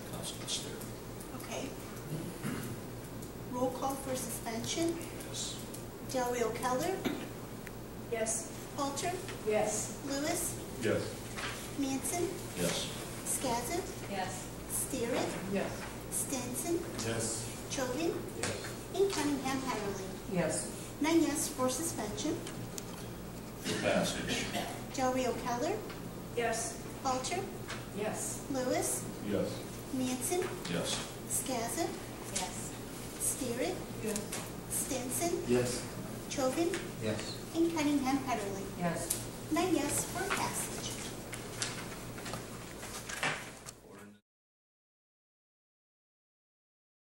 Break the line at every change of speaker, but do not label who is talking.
for suspension,
Yes.
Del Rio Keller,
Yes.
Halter,
Yes.
Lewis,
Yes.
Manson,
Yes.
Skazin,
Yes.
Steerick,
Yes.
Stinson,
Yes.
Chovin,
Yes.
and Cunningham Heatherly.
Yes.
Nine yes for suspension,
For passage.
Del Rio Keller,
Yes.
Halter,
Yes.
Lewis,
Yes.
Manson,
Yes.
Skazin,
Yes.
Steerick,
Yes.
Stinson,
Yes.
Chovin,
Yes.
and Cunningham Heatherly.
Yes.
Nine yes for passage.